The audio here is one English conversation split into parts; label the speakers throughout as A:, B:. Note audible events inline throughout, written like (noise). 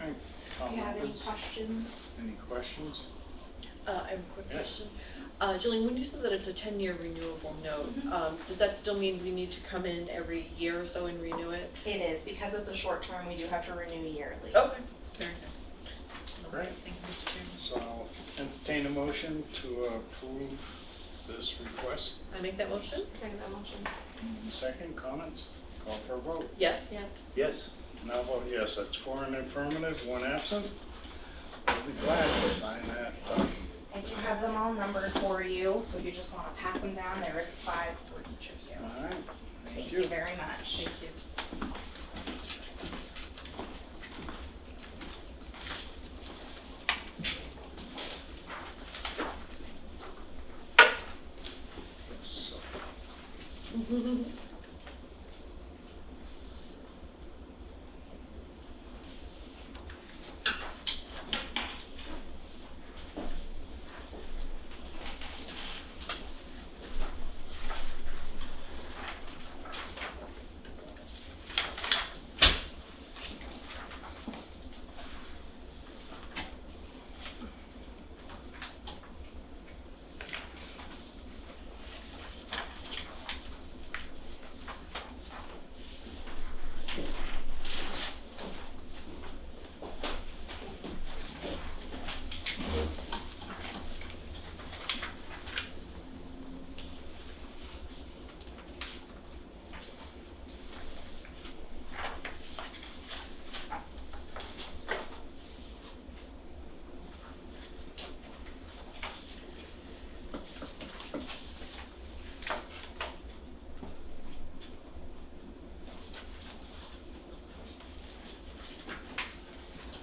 A: Do you have any
B: members?
A: questions?
B: Any questions?
C: Uh, I have a quick
B: Yeah.
C: question. Uh, Jillian, when you said that it's a ten-year renewable note, um, does that still mean we need to come in every year or so and renew it?
A: It is, because it's a short term, we do have to renew yearly.
C: Okay, very good.
B: Great.
C: Thank you, Mr. Chairman.
B: So I'll entertain a motion to approve this request.
C: I make that motion?
A: Second that motion.
B: Any Second, comments? Call for a vote.
C: Yes?
A: Yes.
D: Yes.
B: And I'll vote yes, that's four in affirmative, one absent. I'll be glad to sign that. uh,
A: I do have them all numbered for you, so if you just want to pass them down, there is five for each of you.
B: All right, thank
A: Thank you
B: you.
A: very much.
C: Thank you.
B: So,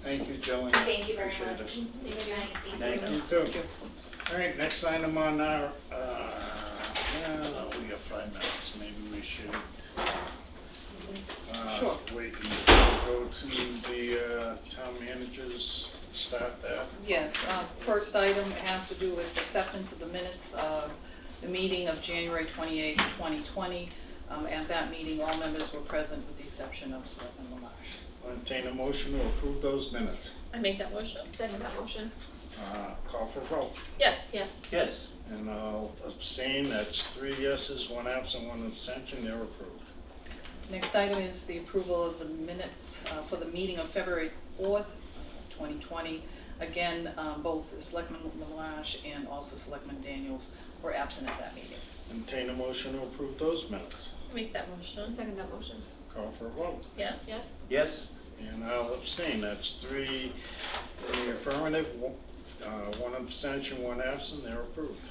B: Thank you, Jillian.
A: Thank you very
B: Appreciate
A: much.
B: it.
A: Thank
D: Thank
B: You too. All right, next item on our, uh, well, we got five minutes, maybe we should. uh,
C: Sure.
B: Wait and go to the uh, town managers, start that.
E: Yes, uh, first item has to do with acceptance of the minutes of the meeting of January 28, 2020. Um, At that meeting, all members were present with the exception of Selectman Lamarche.
B: Entertain a motion to approve those minutes.
C: I make that motion?
A: Second that motion.
B: Uh, Call for vote.
C: Yes.
A: Yes.
D: Yes.
B: And I'll abstain, that's three yeses, one absent, one abstention, they're approved.
E: Next item is the approval of the minutes uh, for the meeting of February 4th, 2020. Again, um, both Selectman Lamarche and also Selectman Daniels were absent at that meeting.
B: Entertain a motion to approve those minutes.
C: I make that motion?
A: Second that motion.
B: Call for vote.
C: Yes?
A: Yes.
D: Yes.
B: And uh, I'll abstain, that's three in the affirmative, one- uh, one abstention, one absent, they're approved.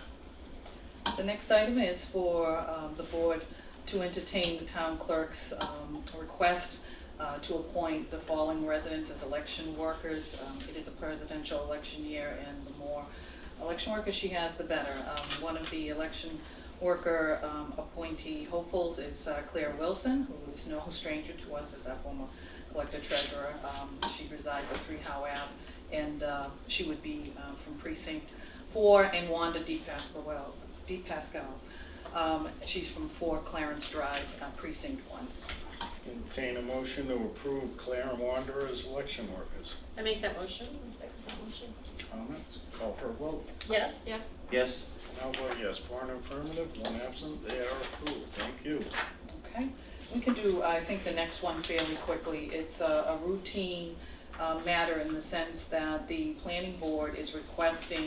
E: The next item is for um, the board to entertain the town clerk's um, request uh, to appoint the following residents as election workers. Um, It is a presidential election year, and the more election workers she has, the better. Um, One of the election worker um, appointee hopefuls is uh, Claire Wilson, who is no (laughs) stranger to us as our former collector treasurer. Um, She resides at 3 Howe Ave, and uh, she would be uh, from precinct 4, and Wanda D. Pasquale, D. Pascal. Um, She's from 4 Clarence Drive, uh, precinct 1.
B: Entertain a motion to approve Claire and Wander as election workers.
C: I make that motion?
A: Second that motion.
B: Comments? Call for vote.
C: Yes?
A: Yes.
D: Yes.
B: I'll vote yes, four in affirmative, one absent, they are approved. Thank you.
E: Okay, we can do, I think, the next one fairly quickly. It's a a routine uh, matter in the sense that the planning board is requesting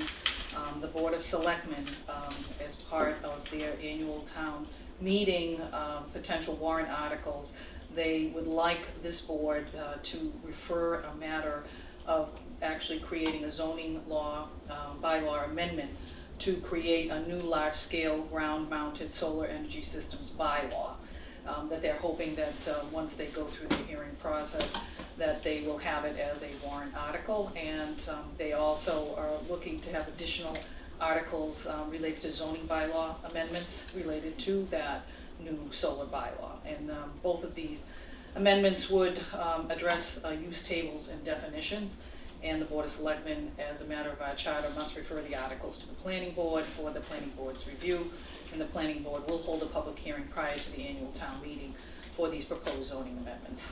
E: um, the Board of Selectmen um, as part of their annual town meeting, um, potential warrant articles. They would like this board uh, to refer a matter of actually creating a zoning law, um, bylaw amendment to create a new large-scale ground-mounted solar energy systems bylaw. um, That they're hoping that, uh, once they go through the hearing process, that they will have it as a warrant article. And um, they also are looking to have additional articles um, related to zoning bylaw amendments related to that new solar bylaw. And um, both of these amendments would um, address uh, use tables and definitions. And the Board of Selectmen, as a matter of our charter, must refer the articles to the planning board for the planning board's review. And the planning board will hold a public hearing prior to the annual town meeting for these proposed zoning amendments.